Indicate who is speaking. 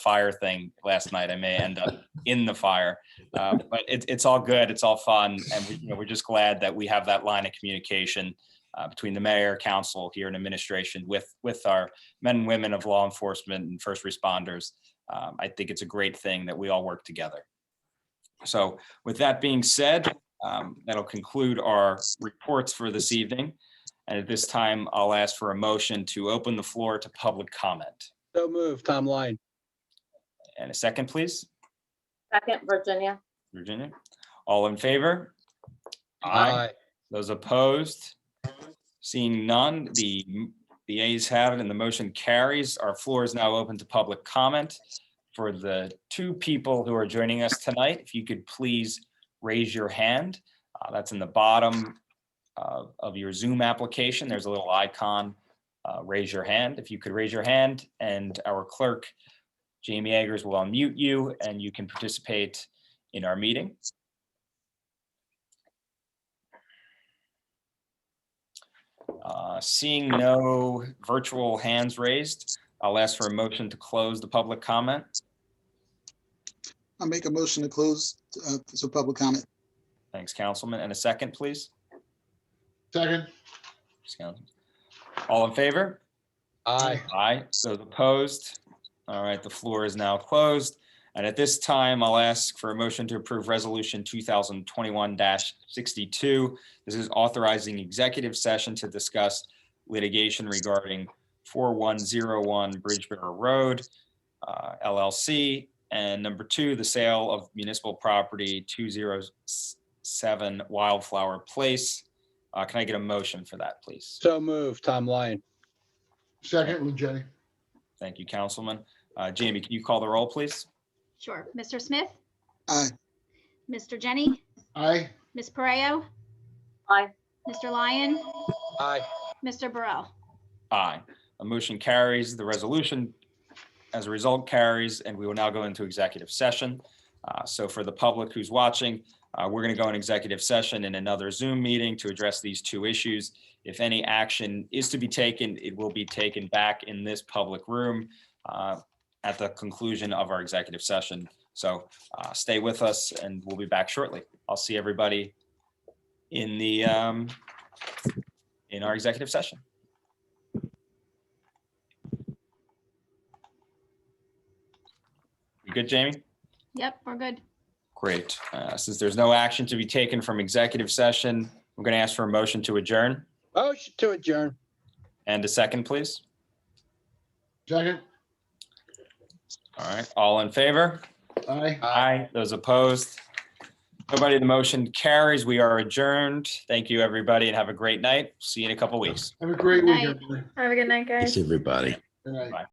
Speaker 1: fire thing last night. I may end up in the fire, uh, but it, it's all good. It's all fun, and we, you know, we're just glad that we have that line of communication uh, between the mayor, council here, and administration with with our men and women of law enforcement and first responders. Um, I think it's a great thing that we all work together. So, with that being said, um, that'll conclude our reports for this evening. And at this time, I'll ask for a motion to open the floor to public comment.
Speaker 2: So move, Tom Line.
Speaker 1: And a second, please,
Speaker 3: Second, Virginia.
Speaker 1: Virginia. All in favor? Those opposed? Seeing none, the, the ayes have it and the motion carries. Our floor is now open to public comment. For the two people who are joining us tonight, if you could please raise your hand. Uh, That's in the bottom uh, of your Zoom application. There's a little icon, uh, raise your hand. If you could raise your hand and our clerk, Jamie Eggers, will unmute you and you can participate in our meeting. Uh, Seeing no virtual hands raised, I'll ask for a motion to close the public comment.
Speaker 4: I'll make a motion to close, uh, so public comment.
Speaker 1: Thanks, Councilman. And a second, please.
Speaker 5: Second,
Speaker 1: Thanks, Councilman. All in favor?
Speaker 2: Aye.
Speaker 1: Aye, so opposed. All right, the floor is now closed. And at this time, I'll ask for a motion to approve Resolution 2021-62. This is authorizing executive session to discuss litigation regarding 4101 Bridgeboro Road uh, LLC. And number two, the sale of municipal property 207 Wildflower Place. Uh, Can I get a motion for that, please?
Speaker 2: So move, Tom Line.
Speaker 5: second, Jenny.
Speaker 1: Thank you, Councilman. Uh, Jamie, can you call the roll, please?
Speaker 6: Sure. Mr. Smith?
Speaker 4: Aye.
Speaker 6: Mr. Jenny?
Speaker 5: Aye,
Speaker 6: Ms. Pareo?
Speaker 3: Aye.
Speaker 6: Mr. Lyon?
Speaker 2: Aye.
Speaker 6: Mr. Burrell?
Speaker 1: Aye. A motion carries, the resolution as a result carries, and we will now go into executive session. Uh, So for the public who's watching, uh, we're going to go in executive session in another Zoom meeting to address these two issues. If any action is to be taken, it will be taken back in this public room uh, at the conclusion of our executive session. So uh, stay with us and we'll be back shortly. I'll see everybody in the, um, in our executive session. You good, Jamie?
Speaker 6: Yep, we're good.
Speaker 1: Great. Uh, Since there's no action to be taken from executive session, I'm going to ask for a motion to adjourn.
Speaker 2: Motion to adjourn.
Speaker 1: And a second, please.
Speaker 5: second,
Speaker 1: All right, all in favor?
Speaker 5: aye.
Speaker 1: Aye. Those opposed? Nobody, the motion carries. We are adjourned. Thank you, everybody, and have a great night. See you in a couple weeks.
Speaker 5: Have a great
Speaker 6: Good night.
Speaker 5: weekend. Jenny.
Speaker 3: Have a good night, guys.
Speaker 7: Thanks, everybody.
Speaker 5: Good night.